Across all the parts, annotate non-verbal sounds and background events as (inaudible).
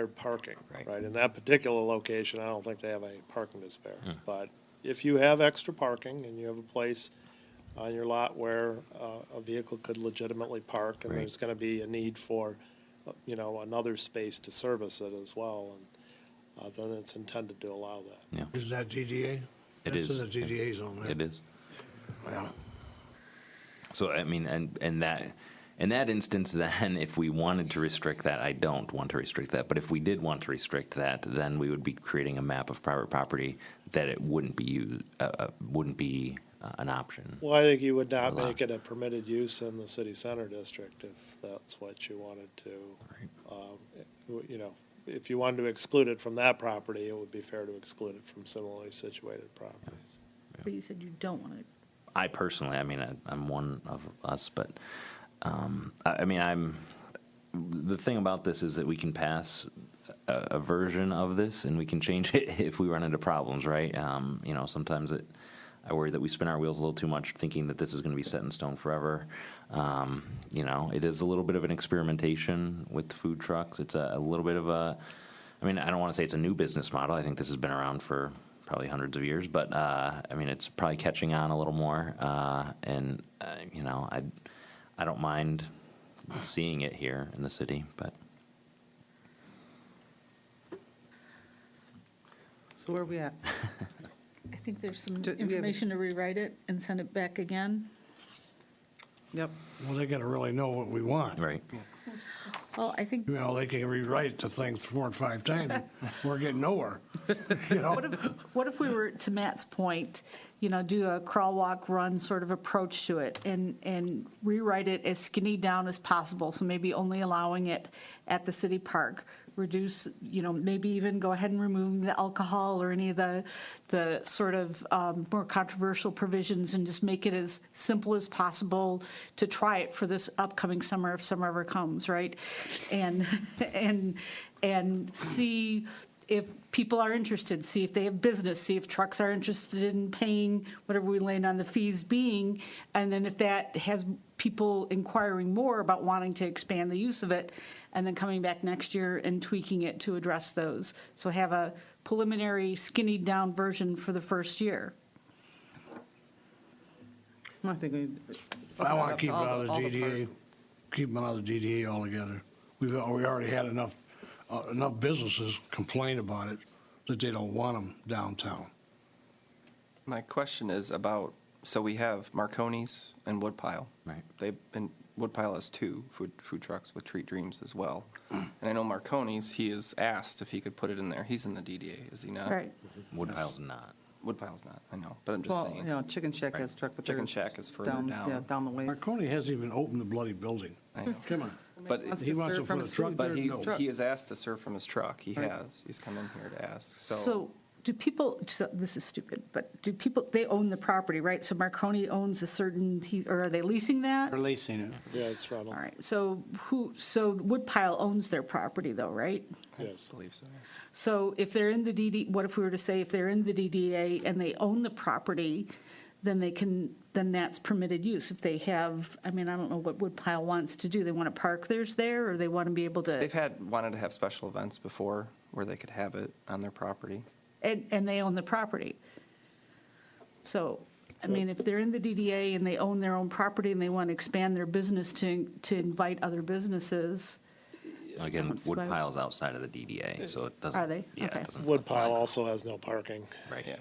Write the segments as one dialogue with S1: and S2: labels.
S1: their parking,
S2: Right.
S1: right? In that particular location, I don't think they have any parking to spare.
S2: Hmm.
S1: But if you have extra parking and you have a place on your lot where uh, a vehicle could legitimately park, and
S2: Right.
S1: there's going to be a need for, uh, you know, another space to service it as well, and uh, then it's intended to allow that.
S3: Is that GDA?
S2: It is.
S3: That's in the GDA zone, right?
S2: It is.
S3: Yeah.
S2: So I mean, and and that in that instance, then if we wanted to restrict that, I don't want to restrict that. But if we did want to restrict that, then we would be creating a map of private property that it wouldn't be used, uh, uh, wouldn't be uh, an option.
S1: Well, I think you would not
S2: Allow.
S1: make it a permitted use in the city center district if that's what you wanted to. um, w- You know, if you wanted to exclude it from that property, it would be fair to exclude it from similarly situated properties.
S4: But you said you don't want to,
S2: I personally, I mean, I, I'm one of us, but um, I, I mean, I'm. The thing about this is that we can pass a, a version of this, and we can change (laughs) it if we run into problems, right? Um, you know, sometimes it. I worry that we spin our wheels a little too much, thinking that this is going to be set in stone forever. Um, you know, it is a little bit of an experimentation with food trucks. It's a, a little bit of a. I mean, I don't want to say it's a new business model. I think this has been around for probably hundreds of years, but uh, I mean, it's probably catching on a little more. Uh, and uh, you know, I I don't mind seeing it here in the city, but
S5: So where are we at?
S4: I think there's some
S5: Do we have-
S4: information to rewrite it and send it back again.
S5: Yep.
S3: Well, they gotta really know what we want.
S2: right,
S4: Well, I think,
S3: You know, they can rewrite the things four or
S2: (laughs)
S3: five times, we're getting nowhere, you know?
S4: what if, what if we were, to Matt's point, you know, do a crawl, walk, run sort of approach to it and, and rewrite it as skinny down as possible? So maybe only allowing it at the city park, reduce, you know, maybe even go ahead and remove the alcohol or any of the, the sort of um, more controversial provisions and just make it as simple as possible to try it for this upcoming summer if summer ever comes, right? And, (laughs) and, and see if people are interested, see if they have business, see if trucks are interested in paying whatever we land on the fees being. And then if that has people inquiring more about wanting to expand the use of it, and then coming back next year and tweaking it to address those. So have a preliminary skinnied down version for the first year.
S5: I think we.
S3: I wanna keep it
S5: All the-
S3: out of the
S5: all the
S3: GDA, keep them out of the GDA altogether. We've, al- we already had enough, uh, enough businesses complain about it, that they don't want them downtown.
S6: My question is about, so we have Marconi's and Woodpile.
S2: Right.
S6: They, and Woodpile has two food, food trucks with Treat Dreams as well.
S3: Mm.
S6: And I know Marconi's, he is asked if he could put it in there. He's in the DDA, is he not?
S2: Woodpile's not.
S6: Woodpile's not, I know, but I'm just
S5: Well, you
S6: saying.
S5: know, Chicken Shack has truck, but they're.
S6: Chicken Shack is further down.
S5: Yeah, down the ways.
S3: Marconi hasn't even opened the bloody building.
S6: I know.
S3: Come on.
S6: But,
S5: Wants
S3: He
S5: to
S3: wants
S5: serve
S3: to
S5: from
S3: put a
S5: his
S3: truck
S5: food.
S3: there?
S6: but he,
S3: No.
S6: he is asked to serve from his truck. He has. He's come in here to ask,
S4: So do people, so this is stupid, but do people, they own the property, right? So Marconi owns a certain, he- or are they leasing that?
S7: Releasing it.
S1: Yeah, it's rental,
S4: All right, so who, so Woodpile owns their property though, right?
S1: yes.
S6: I believe so. yes.
S4: So if they're in the DD, what if we were to say if they're in the DDA and they own the property, then they can, then that's permitted use. If they have, I mean, I don't know what Woodpile wants to do. They want to park theirs there or they want to be able to,
S6: They've had, wanted to have special events before where they could have it on their property.
S4: and, and they own the property. So, I mean, if they're in the DDA and they own their own property and they want to expand their business to, to invite other businesses,
S2: Again,
S4: That's what I-
S2: Woodpile's outside of the DDA, so it doesn't.
S4: Are they?
S2: Yeah,
S4: Okay.
S2: it doesn't. apply.
S1: Woodpile also has no parking.
S2: Right.
S6: Yeah.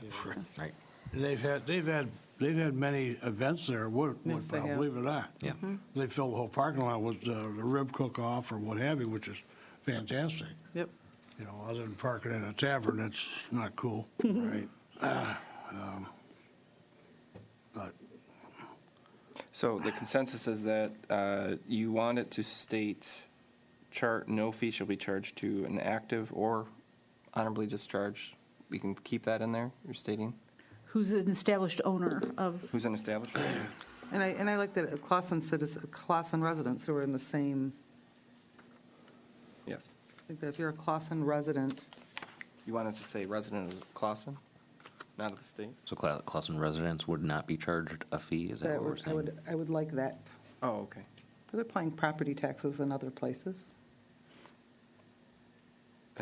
S2: Right.
S3: And They've had, they've had, they've had many events there, Wood,
S5: Yes,
S3: Woodpile,
S5: they have. Mm-hmm.
S3: believe it or not.
S2: Yeah. Mhm.
S3: They filled the whole parking lot with uh, the rib cook-off or what have you, which is fantastic.
S5: Yep.
S3: You know, other than parking in a tavern, that's not cool.
S5: (laughs)
S3: Right. Ah, um, But,
S6: So the consensus is that uh, you want it to state, chart, no fee shall be charged to an active or honorably discharged. We can keep that in there, you're stating?
S4: who's an established owner of
S6: Who's an (clears throat) establishment?
S5: And I, and I like that Clausen citizens, Clausen residents who are in the same,
S6: Yes.
S5: I think that if you're a Clausen resident,
S6: You want it to say resident of Clausen, not of the state?
S2: So Cla- Clausen residents would not be charged a fee. Is that, what
S5: that
S2: we're
S5: would, I
S2: saying?
S5: would, I would like that.
S6: Oh, okay.
S5: They're paying property taxes in other places.